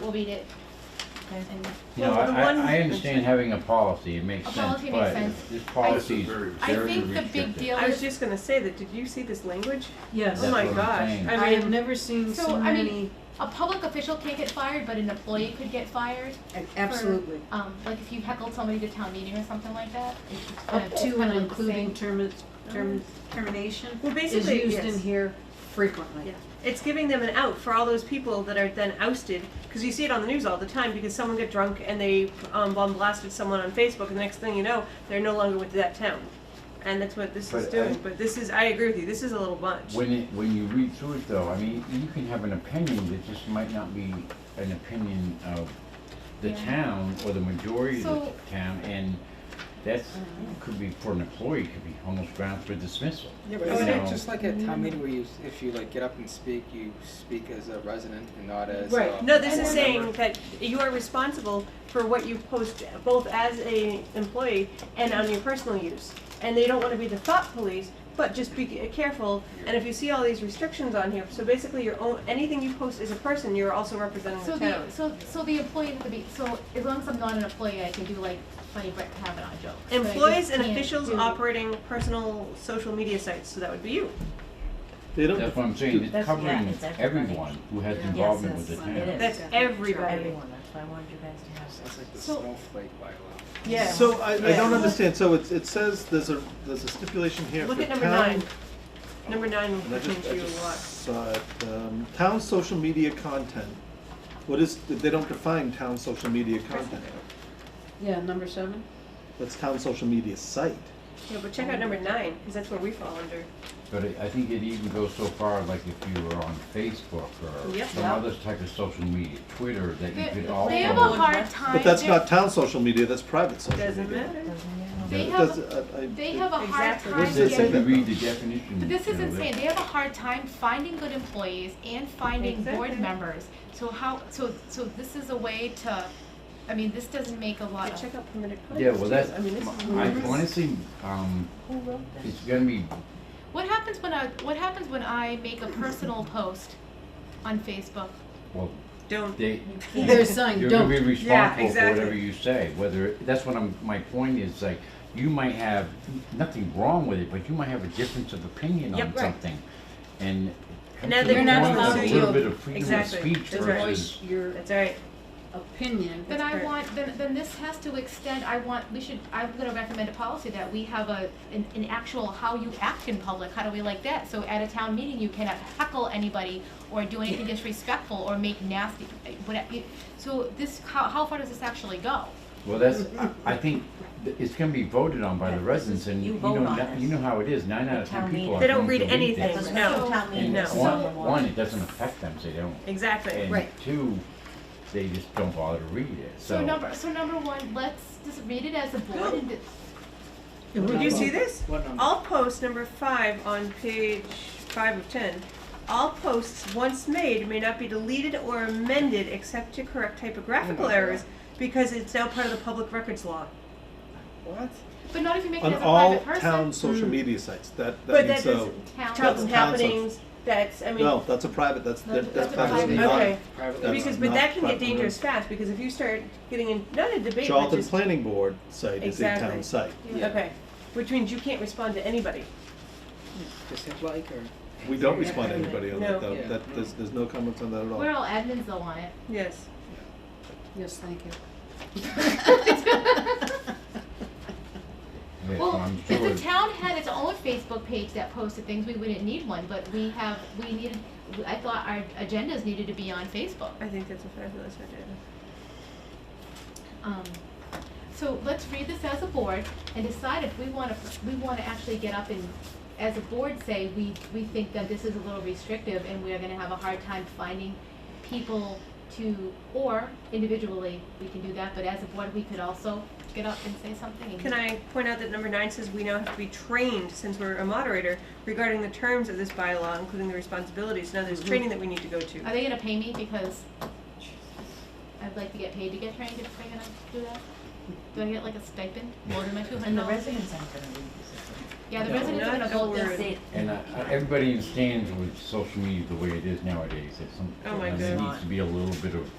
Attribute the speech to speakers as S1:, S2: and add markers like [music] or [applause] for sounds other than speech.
S1: We'll beat it.
S2: Okay.
S1: And
S3: You know,
S2: Well, the
S3: I,
S2: one-
S3: I- I understand having a policy, it makes
S1: A
S3: sense,
S1: policy makes
S3: but
S1: sense.
S3: this policy is
S4: This is
S3: very
S4: very-
S1: I
S3: restrictive.
S1: think the big deal
S5: I was
S1: is,
S5: just gonna say that, did you see this language?
S2: Yes.
S5: Oh my
S3: That's what I'm
S5: gosh,
S3: saying.
S2: I
S5: I
S2: have
S5: mean,
S2: never seen
S1: So,
S2: so
S1: Oh, I mean-
S2: many,
S1: a public official can't get fired, but an employee could get fired.
S2: absolutely,
S1: Um, like if you heckled somebody to town meeting or something like that. it's kind
S2: up
S1: of-
S2: to
S1: kind
S2: and
S1: of like the same.
S2: including
S1: Mm-hmm.
S2: term, term, termination
S5: well,
S2: is
S5: basically,
S2: used in
S5: yes.
S2: here frequently.
S5: Yeah. It's giving them an out for all those people that are then ousted, because you see it on the news all the time, because someone got drunk and they, um, bomb blasted someone on Facebook, and the next thing you know, they're no longer with that town. And that's what this is
S3: But I-
S5: doing, but this is, I agree with you, this is a little much.
S3: When it, when you read through it though, I mean, you can have an opinion that just might not be an opinion of the
S1: Yeah.
S3: town or the majority of
S1: So-
S3: the town, and that's, could be, for an employee, could be almost grounds for dismissal.
S6: Yeah, but
S3: You
S6: isn't
S3: know.
S6: it just like at town meeting where you, s- if you like get up and speak, you speak as a resident and not as
S2: Right.
S6: a
S5: No, this
S6: board
S5: is saying
S6: member?
S5: that you are responsible for what you post both as a employee and on your personal use. And they don't wanna be the thought police, but just be careful, and if you see all these restrictions on here, so basically your own, anything you post as a person, you're also representing
S1: So
S5: the
S1: the,
S5: town.
S1: so, so the employee at the be, so as long as I'm not an employee, I can do like funny Brett Kavanaugh jokes. but I just
S5: Employees and
S1: can't
S5: officials
S1: do-
S5: operating personal social media sites, so that would be you.
S7: They
S3: That's what I'm saying, it's
S8: That's- yeah,
S3: covering
S8: it's everybody.
S3: everyone who has
S8: Yeah.
S3: involvement with
S2: Yes,
S3: the
S2: yes,
S3: town.
S8: It is.
S5: That's
S8: definitely
S5: everybody.
S8: Everyone, that's why I wanted you guys to have
S6: That's like the
S1: So-
S6: snowflake bylaw.
S5: Yeah.
S7: So I, I don't
S5: Yeah.
S7: understand, so it's, it says there's a, there's a stipulation here for
S5: Look
S7: town.
S5: at number nine. Number nine
S7: And I
S5: will change
S7: just, I
S5: you a
S7: just
S5: lot.
S7: saw it, um, town social media content. What is, they don't define town social media content,
S2: Yeah, number seven?
S7: that's town social media site.
S5: Yeah, but check out number nine, cause that's where we fall under.
S3: But I I think it even goes so far, like if you were on Facebook or
S5: Yep.
S3: some
S8: Yeah.
S3: other type of social media, Twitter, that you
S1: They
S3: could also.
S1: they have a hard time.
S7: But that's
S1: they're-
S7: not town social media, that's private social media.
S5: Doesn't matter.
S8: to.
S1: They
S7: It
S1: have-
S7: does- I- I-
S1: They have a hard
S5: Exactly.
S1: time
S7: What does
S3: This
S7: it
S3: is,
S7: say
S3: if
S1: getting,
S3: you
S7: that,
S3: read
S7: though?
S3: the definition.
S1: but this
S3: you
S1: is
S3: know,
S1: insane, they have a hard time finding good employees and finding board
S5: Exactly.
S1: members. So how, so, so this is a way to, I mean, this doesn't make a lot
S5: Yeah,
S1: of,
S5: check out permitted
S3: that- Yeah,
S5: content,
S3: well,
S5: too.
S3: that's,
S5: I mean, this is.
S3: I honestly, um,
S8: Who wrote this?
S3: it's gonna be,
S1: what happens when I, what happens when I make a personal post on Facebook?
S3: well,
S5: Don't
S3: they,
S2: They're saying,
S3: You're gonna
S2: don't.
S3: be responsible for whatever
S5: exactly.
S3: you say, whether, that's what I'm, my point is, like, you might have, nothing wrong with it, but you might have a difference of opinion on
S5: Yep, right.
S3: something. And
S5: And now
S3: it comes to
S5: they're
S3: the
S2: not
S3: point of
S2: allowed
S3: a
S2: to-
S3: little bit of freedom of
S5: Exactly.
S3: speech
S5: That's right.
S3: versus,
S2: Your
S5: That's all right.
S2: opinion.
S1: Then I
S5: correct.
S1: want, then, then this has to extend, I want, we should, I'm gonna recommend a policy that we have a, an, an actual how you act in public, how do we like that? So at a town meeting, you cannot heckle anybody or do anything disrespectful or make nasty, whatever. So this, how, how far does this actually go?
S3: well, that's, I think, th- it's gonna be voted on by
S8: Yeah,
S3: the
S8: this
S3: residents,
S8: is-
S3: and
S8: you
S3: you
S8: vote
S3: know,
S8: on
S3: not-
S8: this.
S3: you know how it is, nine out
S8: The
S3: of
S8: town
S3: ten people
S8: meeting.
S3: are
S5: They don't
S3: going
S5: read
S3: to
S5: anything.
S3: this.
S8: That's
S5: No.
S8: what town meeting
S5: No.
S8: is.
S3: One,
S8: So-
S3: one, it doesn't affect them, so they don't,
S5: Exactly.
S3: and
S2: Right.
S3: two, they just don't bother to read it,
S1: So number, so number one, let's just read it as a board and,
S5: Did you see this?
S6: What number?
S5: All posts, number five on page five of ten. All posts once made may not be deleted or amended except to correct typographical
S6: Oh my God.
S5: errors because it's now part of the public records law.
S6: What?
S1: but not if you make it
S7: On
S1: as a
S7: all
S1: private person.
S7: town social media sites, that,
S5: Hmm. But
S7: that
S5: that
S7: means so,
S5: doesn't,
S1: Town.
S5: tells
S7: That's
S5: happenings, that's, I mean,
S7: no, that's a private, that's, that-
S1: That's
S7: that's
S1: a
S7: private,
S1: private-
S7: not,
S5: okay.
S6: Privately
S7: That's
S5: because,
S6: run.
S5: but
S7: not
S5: that can get
S7: proper.
S5: dangerous fast because if you start getting in, not a debate, but
S7: Charlton
S5: just,
S7: Planning Board site is a
S5: Exactly.
S7: town site.
S5: okay. Which means you can't respond to anybody.
S6: Just hit like or?
S7: We don't respond to anybody on that,
S5: No.
S7: though. that, there's, there's no comments on that at all.
S1: We're all admins though on it.
S5: Yes.
S2: Yes, thank you.
S1: [laughs]
S3: Yeah, so
S1: Well,
S3: I'm
S1: if
S3: sure-
S1: the town had its own Facebook page that posted things, we wouldn't need one, but we have, we needed, I thought our agendas needed to be on Facebook.
S5: I think that's a fabulous idea.
S1: Um, so let's read this as a board and decide if we wanna, we wanna actually get up and, as a board, say, we, we think that this is a little restrictive and we're gonna have a hard time finding people to, or individually, we can do that, but as a board, we could also get up and say something and-
S5: Can I point out that number nine says we now have to be trained, since we're a moderator, regarding the terms of this bylaw, including the responsibilities. Now, there's training that we need to go to.
S1: Are they gonna pay me because I'd like to get paid to get trained if they're gonna do that? Do I get like a stipend more than my two
S8: And
S1: hundred
S8: the
S1: dollars?
S8: residents aren't gonna read this.
S1: Yeah, the
S3: No.
S1: residents are gonna
S5: Not a
S1: vote
S5: word.
S1: this.
S8: They-
S3: And I, I- everybody understands with social media the way it is nowadays, it's some,
S5: Oh my
S3: and there
S5: God.
S3: needs to be a little bit of